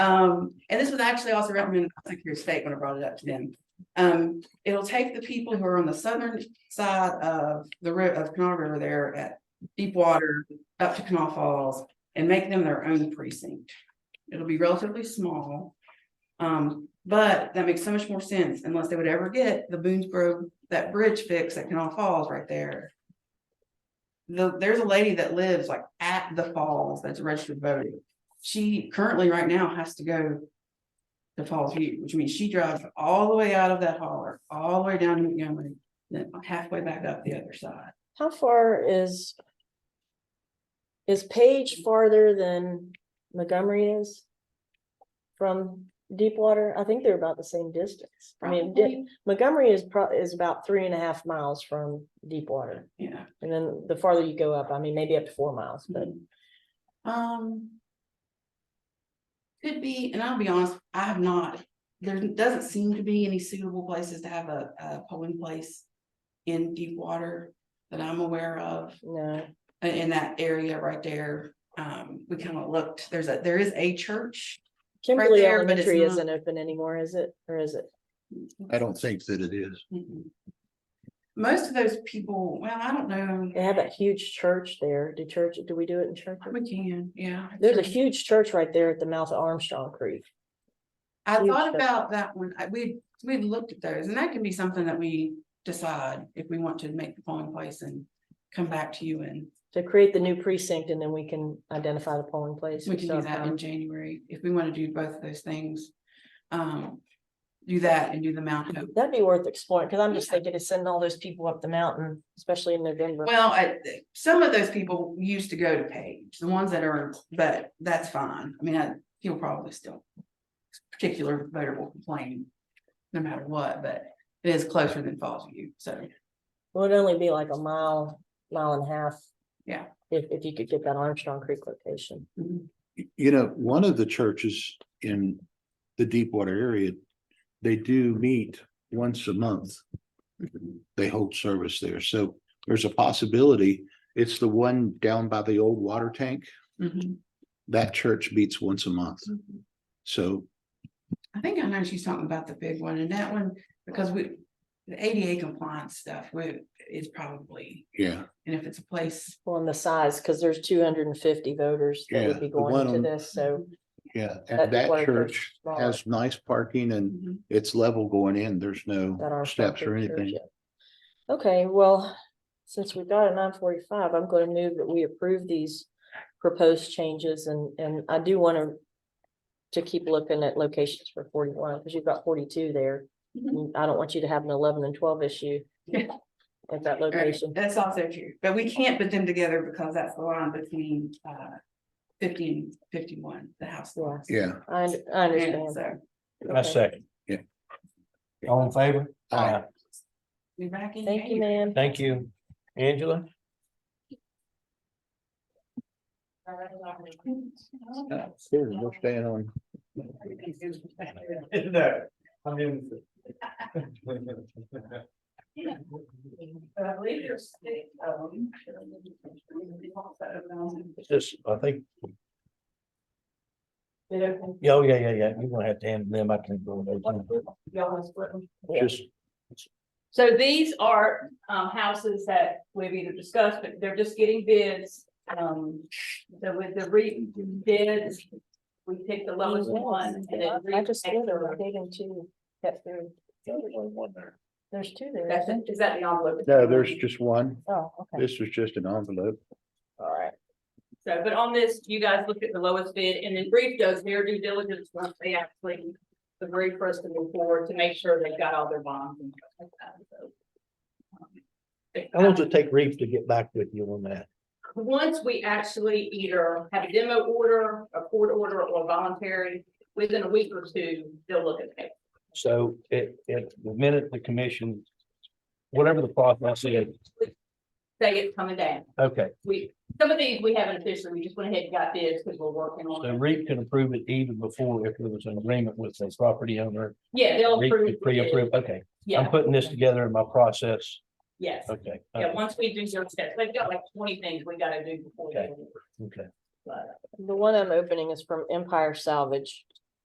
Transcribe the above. Um, and this was actually also recommended by Secretary of State when I brought it up to them. Um, it'll take the people who are on the southern side of the ri- of Canal River there at Deepwater up to Canal Falls and make them their own precinct. It'll be relatively small. Um, but that makes so much more sense unless they would ever get the Boonesboro that bridge fix at Canal Falls right there. The, there's a lady that lives like at the falls that's a registered voter she currently right now has to go to Falls View, which means she drives all the way out of that holler, all the way down to Montgomery, then halfway back up the other side. How far is? Is Page farther than Montgomery is? From Deepwater? I think they're about the same distance. I mean, Di- Probably, Montgomery is pro- is about three and a half miles from Deepwater. Yeah. And then the farther you go up, I mean, maybe up to four miles, but Um. Could be, and I'll be honest, I have not, there doesn't seem to be any suitable places to have a, a polling place in Deepwater that I'm aware of. no. i- in that area right there. Um, we kind of looked, there's a, there is a church. Kimberly there, but it's Elementary not- isn't open anymore, is it? Or is it? I don't think that it is. Mm-mm. Most of those people, well, I don't know, They have that huge church there. Do church, do we do it in church? we can, yeah. There's a huge church right there at the mouth of Armstrong Creek. I huge thought that- about that one, I, we, we've looked at those, and that can be something that we decide if we want to make the polling place and come back to you and To create the new precinct and then we can identify the polling place. um, we can do that in January, if we want to do both of those things. Um, do that and do the Mount Hope. That'd be worth exploring, because I'm just Yeah. thinking of sending all those people up the mountain, especially in November. Well, I, some of those people used to go to Page, the ones that are, but that's fine. I mean, I, he'll probably still. Particular voter will complain, no matter what, but it is closer than Falls View, so. Well, It'd only be like a mile, mile and a half. Yeah. If, if you could get that Armstrong Creek location. You know, one of the churches in the Deepwater area, they do meet once a month. They hold service there. So there's a possibility. It's the one down by the old water tank. Mhm. That church meets once a month. So I think I know she's talking about the big one and that one, because we, the ADA compliance stuff, we, is probably, yeah, and if it's a place. Well, and the size, because there's two hundred and fifty voters that Yeah, would be the one going to on- this, so. yeah. That's And that one of the church has nice parking and Mhm. it's level going in. There's that no are. steps or subject to anything. it. Okay, well, since we've got a nine forty-five, I'm gonna move that we approve these proposed changes and, and I do want to to keep looking at locations for forty-one, because you've got forty-two there. Mm, Mhm. I don't want you to have an eleven and twelve issue Yeah. at that Right, location. That's also true, but we can't put them together because that's the line between uh fifty and fifty-one, the house. Yeah. lots. Yeah. I, und- I Yeah, understand. so, I Okay. second. Yeah. All in favor? Aye. we back in. Thank you, January. ma'am. Thank you. Angela? Yeah, Here, we're staying on. No, I'm in. But I believe there's um, six of them. Just, I think, It opens, yeah, oh, yeah, yeah, yeah, you're gonna have to hand them, I can go there. y'all wanna split them? Just, So these are um houses that we've either discussed, but they're just getting bids. Um, so with the re bids, we picked the lowest one and then. Mm-hmm. I just re- did a rotating two. That's there. There's two there. That's isn't it? Is that the envelope? No, there's just one. there? Oh, okay, This is just an envelope. all right. So, but on this, you guys look at the lowest bid and then brief does their due diligence once they actually agree for us to move forward to make sure they've got all their bonds and stuff like that, so. um, how long does it take Reeve to get back with you on that? Once we actually either have a demo order, a court order, or voluntary, within a week or two, they'll look at it. So it, it, the minute the commission, whatever the process is, Say it's coming down. okay, We, some of these we haven't officially, we just went ahead and got bids because we're working on so it. Reeve can approve it even before if there was an agreement with the property owner. Yeah, they'll Reeve approve. could Pre-approve, okay, I'm Yeah, putting this together in my process, yes. okay. Yeah, once we do zero steps, they've got like twenty things we gotta do before. they- Okay. But The one I'm opening is from Empire Salvage.